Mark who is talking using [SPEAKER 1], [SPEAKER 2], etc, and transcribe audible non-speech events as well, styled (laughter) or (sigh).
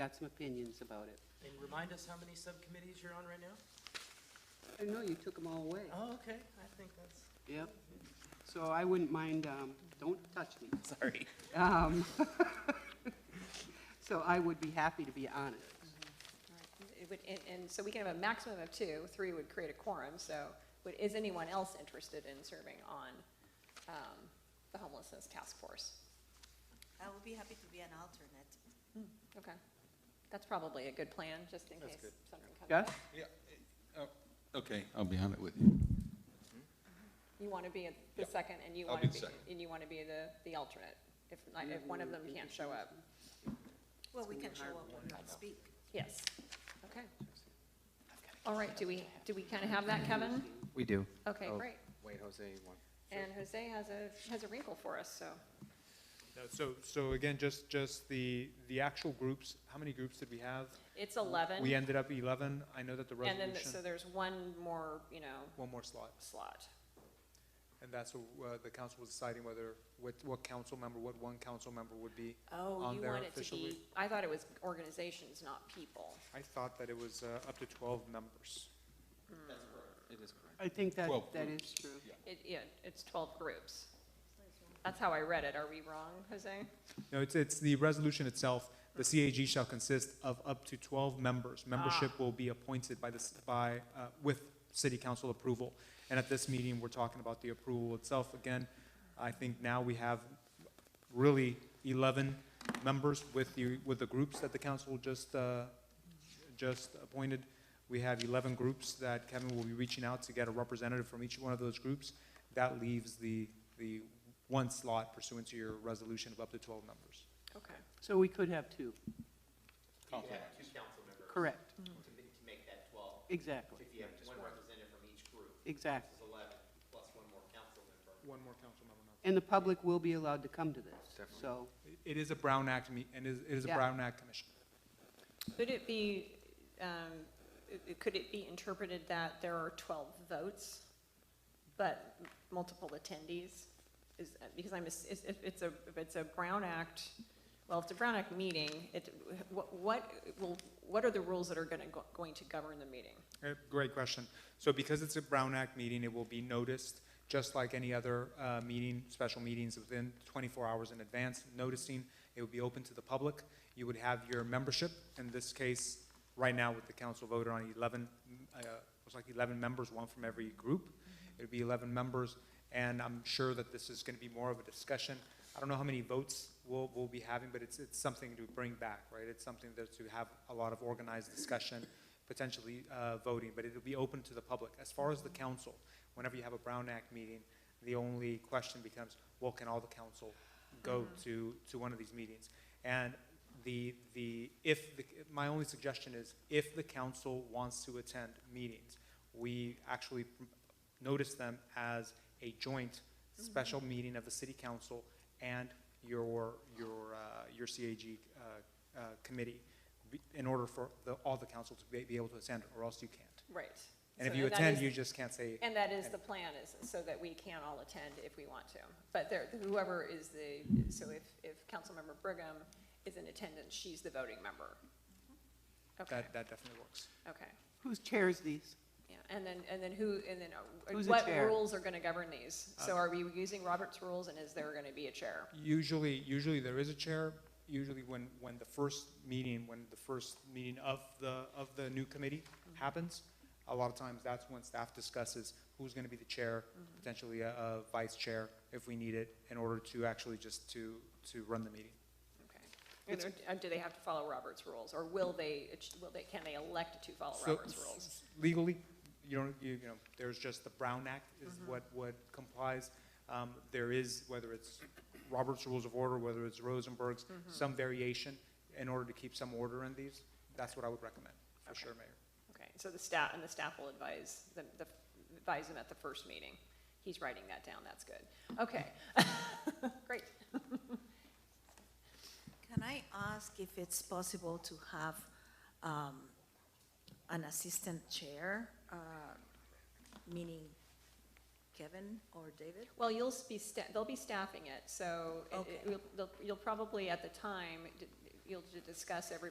[SPEAKER 1] got some opinions about it.
[SPEAKER 2] And remind us how many subcommittees you're on right now?
[SPEAKER 1] I know you took them all away.
[SPEAKER 2] Oh, okay, I think that's.
[SPEAKER 1] Yep. So I wouldn't mind, um, don't touch me.
[SPEAKER 2] Sorry.
[SPEAKER 1] Um, (laughs) So I would be happy to be on it.
[SPEAKER 3] Right. It would- And, and so we can have a maximum of two, three would create a quorum, so would, is anyone else interested in serving on um, the homelessness task force?
[SPEAKER 4] I will be happy to be an alternate.
[SPEAKER 3] Okay, that's probably a good plan, just in case something comes
[SPEAKER 1] Gus?
[SPEAKER 3] up.
[SPEAKER 5] Yeah, eh, oh, okay, I'll be on it with you.
[SPEAKER 3] You want to be at the
[SPEAKER 5] Yeah.
[SPEAKER 3] second, and you
[SPEAKER 5] I'll
[SPEAKER 3] want to
[SPEAKER 5] be the
[SPEAKER 3] be,
[SPEAKER 5] second.
[SPEAKER 3] and you want to be the, the alternate, if, not- if one of them can't show up.
[SPEAKER 4] Well, we can show up and not speak.
[SPEAKER 3] Yes, okay. All right, do we, do we kind of have that, Kevin?
[SPEAKER 6] We do.
[SPEAKER 3] Okay,
[SPEAKER 6] Oh,
[SPEAKER 3] great.
[SPEAKER 6] Wait, Jose, one.
[SPEAKER 3] And Jose has a, has a wrinkle for us, so.
[SPEAKER 7] No, So, so again, just, just the, the actual groups, how many groups did we have?
[SPEAKER 3] It's 11.
[SPEAKER 7] We ended up 11. I know that the
[SPEAKER 3] And then, th- so
[SPEAKER 7] resolution,
[SPEAKER 3] there's one more, you know,
[SPEAKER 7] one more slot.
[SPEAKER 3] slot.
[SPEAKER 7] And that's what uh, the council was deciding whether, what, what council member, what one council member would be.
[SPEAKER 3] Oh,
[SPEAKER 7] On
[SPEAKER 3] you
[SPEAKER 7] there
[SPEAKER 3] want it to
[SPEAKER 7] officially?
[SPEAKER 3] be, I thought it was organizations, not people.
[SPEAKER 7] I thought that it was uh, up to 12 members.
[SPEAKER 6] It is correct.
[SPEAKER 1] I think that,
[SPEAKER 5] Well,
[SPEAKER 1] that is true.
[SPEAKER 3] It, yeah, it's 12 groups. That's how I read it. Are we wrong, Jose?
[SPEAKER 7] No, it's, it's the resolution itself. The CAG shall consist of up to 12 members. Membership will be appointed by this, by, uh, with city council approval. And at this meeting, we're talking about the approval itself. Again, I think now we have really 11 members with the, with the groups that the council just, uh, just appointed. We have 11 groups that Kevin will be reaching out to get a representative from each one of those groups. That leaves the, the one slot pursuant to your resolution of up to 12 members.
[SPEAKER 3] Okay.
[SPEAKER 1] So we could have two.
[SPEAKER 5] Compliment.
[SPEAKER 8] two council members
[SPEAKER 1] Correct.
[SPEAKER 2] Hmm.
[SPEAKER 8] to, ma- to make that twelve.
[SPEAKER 1] Exactly.
[SPEAKER 8] If you have one representative from each group,
[SPEAKER 1] Exactly.
[SPEAKER 8] it's eleven, plus one more council member.
[SPEAKER 7] One more council member.
[SPEAKER 1] And the public will be allowed to come to this. So
[SPEAKER 7] It is a Brown Act, me- and it is- it is a
[SPEAKER 1] Yeah.
[SPEAKER 7] Brown Act commission.
[SPEAKER 3] Could it be, um, it- it- could it be interpreted that there are 12 votes, but m- multiple attendees? Is, because I'm, ass- is- if it's a, if it's a Brown Act, well, if it's a Brown Act meeting, it, what, what will, what are the rules that are going to, going to govern the meeting?
[SPEAKER 7] Uh, Great question. So because it's a Brown Act meeting, it will be noticed, just like any other uh, meeting, special meetings within 24 hours in advance, noticing, it would be open to the public. You would have your membership, in this case, right now with the council voted on 11, uh, it was like 11 members, one from every group. It would be 11 members, and I'm sure that this is going to be more of a discussion. I don't know how many votes we'll, we'll be having, but it's, it's something to bring back, right? It's something that to have a lot of organized discussion potentially uh, voting, but it'll be open to the public. As far as the council, whenever you have a Brown Act meeting, the only question becomes, well, can all the council go
[SPEAKER 3] Mm-hmm.
[SPEAKER 7] to, to one of these meetings? And the, the, if, the my only suggestion is, if the council wants to attend meetings, we actually notice them as a joint
[SPEAKER 3] Mm-hmm.
[SPEAKER 7] special meeting of the city council and your, your, uh, your CAG uh, uh, committee be- in order for the, all the council to be, be able to attend, or else you can't.
[SPEAKER 3] Right.
[SPEAKER 7] And if
[SPEAKER 3] So
[SPEAKER 7] you
[SPEAKER 3] that
[SPEAKER 7] attend,
[SPEAKER 3] is-
[SPEAKER 7] you just can't say,
[SPEAKER 3] And that is the plan, is so that we can all attend if we want to. But there, whoever is the, so if, if Councilmember Brigham is in attendance, she's the voting member. Okay,
[SPEAKER 7] that, that definitely works.
[SPEAKER 3] okay,
[SPEAKER 1] who chairs these?
[SPEAKER 3] yeah. And then, and then who, and then uh,
[SPEAKER 1] Who's the
[SPEAKER 3] what
[SPEAKER 1] chair?
[SPEAKER 3] rules are going to govern these? So are we using Robert's rules and is there going to be a chair?
[SPEAKER 7] Usually, usually there is a chair, usually when, when the first meeting, when the first meeting of the, of the new committee happens, a lot of times that's when staff discusses who's gonna be the chair, potentially a, a vice chair if we need it, in order to actually just to, to run the meeting.
[SPEAKER 3] Okay. And are- and do they have to follow Robert's rules or will they, will they, can they elect to follow
[SPEAKER 7] So-
[SPEAKER 3] Robert's rules?
[SPEAKER 7] Legally, you don't, you, you know, there's just the Brown Act is
[SPEAKER 3] Mm-hmm.
[SPEAKER 7] what, what complies. Um, there is, whether it's Robert's Rules of Order, whether it's Rosenberg's,
[SPEAKER 3] Mm-hmm.
[SPEAKER 7] some variation in order to keep some order in these. That's what I would recommend, for sure, Mayor.
[SPEAKER 3] Okay, so the staff, and the staff will advise, the, the, advise him at the first meeting. He's writing that down, that's good. Okay, (laughs) great.
[SPEAKER 4] Can I ask if it's possible to have um, an assistant chair, uh, meaning Kevin or David?
[SPEAKER 3] Well, you'll s- be, sta- they'll be staffing it, so it- it-
[SPEAKER 4] Okay.
[SPEAKER 3] you'll- they'll- you'll probably, at the time, d- you'll d- discuss every,